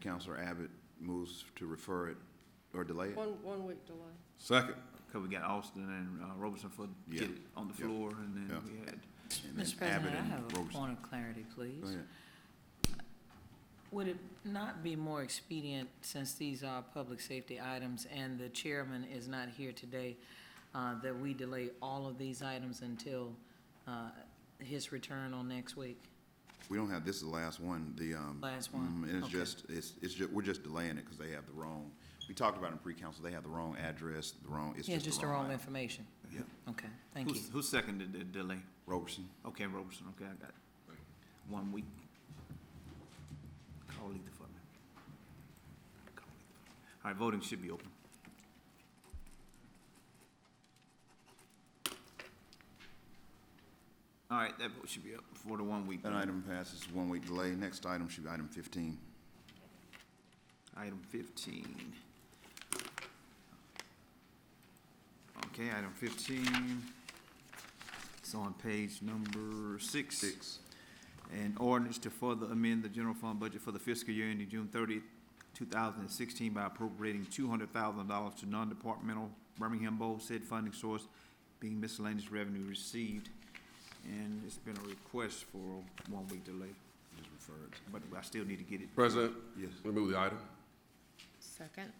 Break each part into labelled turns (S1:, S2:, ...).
S1: Counselor Abbott moves to refer it or delay it.
S2: One, one week delay.
S3: Second.
S4: Because we got Austin and uh, Robertson for, get
S1: Yeah.
S4: it on the
S1: Yeah.
S4: floor, and then
S1: Yeah.
S4: we had,
S1: and then
S5: Mr. President,
S1: Abbott
S5: I
S1: and
S5: have a
S1: Roberson.
S5: point of clarity,
S1: Go
S5: please.
S1: ahead.
S5: Would it not be more expedient, since these are public safety items and the chairman is not here today, uh, that we delay all of these items until uh, his return on next week?
S1: We don't have, this is the last one, the, um.
S5: Last one,
S1: mm, And it's
S5: okay.
S1: just, it's, it's ju, we're just delaying it because they have the wrong, we talked about in pre-council, they have the wrong address, the wrong, it's
S5: Yeah,
S1: just the wrong. item.
S5: information.
S1: Yeah,
S5: Okay, thank you.
S4: who's- who seconded the delay?
S1: Roberson.
S4: Okay, Robertson, okay, I got one week. Call either for me. Call Letha. All right, voting should be open. All right, that vote should be up for the one week.
S1: That item passes one week delay. Next item should be item fifteen.
S4: Item fifteen. Okay, item fifteen. It's on page number six.
S1: Six.
S4: An ordinance to further amend the general fund budget for the fiscal year ending June 30, thousand and sixteen by appropriating two hundred thousand dollars to non-departmental Birmingham Bowl said funding source being miscellaneous revenue received. And it's been a request for a one-week delay,
S1: Just refer it.
S4: but I still need to get it.
S3: President,
S1: Yes,
S3: remove the item.
S2: Second.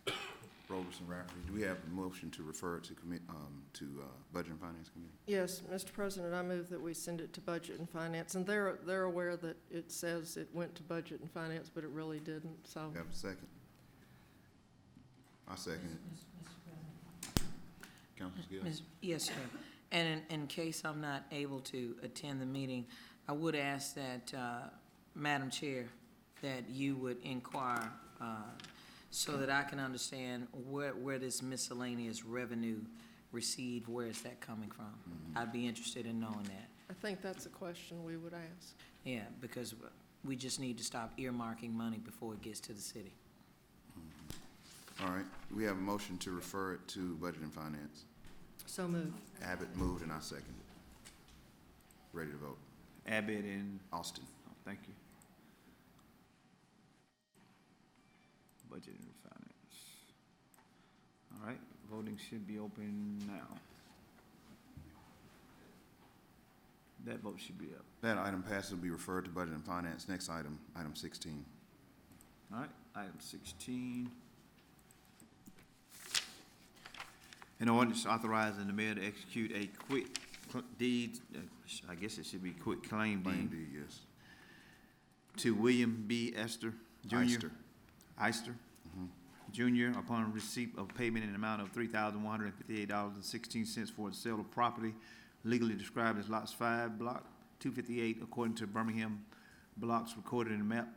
S1: Roberson, Rafferty. Do we have a motion to refer it to commit, um, to, uh, Budget and Finance Committee?
S2: Yes, Mr. President, I move that we send it to Budget and Finance, and they're, they're aware that it says it went to Budget and Finance, but it really didn't, so.
S1: We Have a second? I second it. Councilor Gill?
S5: Ms. Yes, sir. And in, in case I'm not able to attend the meeting, I would ask that, uh, Madam Chair, that you would inquire, uh, so that I can understand where, where this miscellaneous revenue received, where is that coming from? I'd be interested in knowing that.
S2: I think that's a question we would ask.
S5: Yeah, because we just need to stop earmarking money before it gets to the city.
S1: All right. We have a motion to refer it to Budget and Finance.
S2: So moved.
S1: Abbott moved and I second. Ready to vote.
S4: Abbott and
S1: Austin.
S4: Oh, Thank you. Budget and finance. All right, voting should be open now. That vote should be up.
S1: That item passes will be referred to Budget and Finance. Next item, item sixteen.
S4: All right, item sixteen. An ordinance authorizing the mayor to execute a quick cl- deed, uh, sh- I guess it should be quick claim
S1: Lane
S4: deed,
S1: D, yes.
S4: to William B. Esther Jr.
S1: Eyster.
S4: Ister Jr. upon receipt of payment in an amount of three thousand one hundred and fifty-eight dollars and sixteen cents for the sale of property legally described as lots five, block two fifty-eight, according to Birmingham blocks recorded in map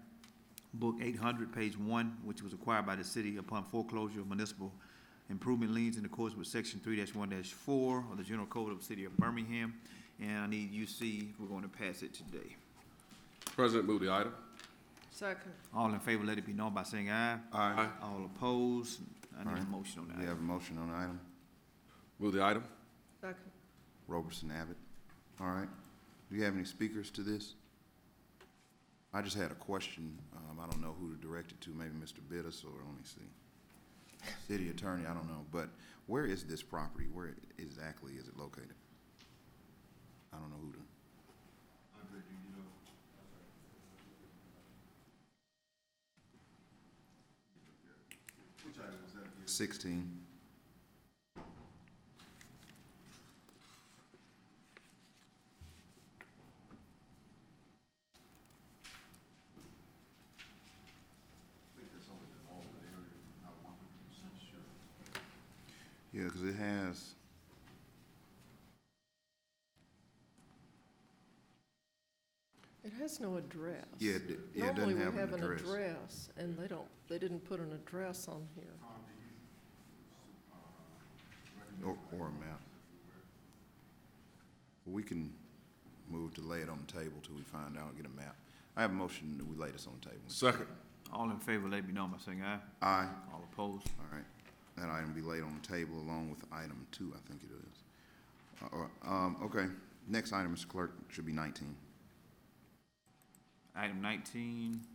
S4: book eight hundred, page one, which was acquired by the city upon foreclosure of municipal improvement liens in accordance with section three one four of the general code of the city of Birmingham. And I need UC, we're going to pass it today.
S3: President, move the item.
S2: Second.
S4: All in favor, let it be known by saying aye.
S3: Aye.
S4: All opposed? I need a
S1: Alright.
S4: motion on
S1: We
S4: that.
S1: have a motion on the item.
S3: Move the item.
S2: Second.
S1: Robertson Abbott. All right. Do you have any speakers to this? I just had a question. Um, I don't know who to direct it to, maybe Mr. Bittis or, let me see. City Attorney, I don't know, but where is this property? Where exactly is it located? I don't know who to. Sixteen. Yeah, because it has.
S2: It has no address.
S1: Yeah, it d- yeah, it doesn't have an
S2: Normally, we have
S1: address.
S2: an address, and they don't, they didn't put an address on here.
S1: Or, or a map. We can move to lay it on the table till we find out, get a map. I have a motion that we lay this on the table.
S3: Second.
S4: All in favor, let it be known by saying aye.
S1: Aye,
S4: All opposed?
S1: all right. That item be laid on the table along with item two, I think it is. Uh, Or, um, okay, next item, Mr. Clerk, should be nineteen.
S4: Item nineteen,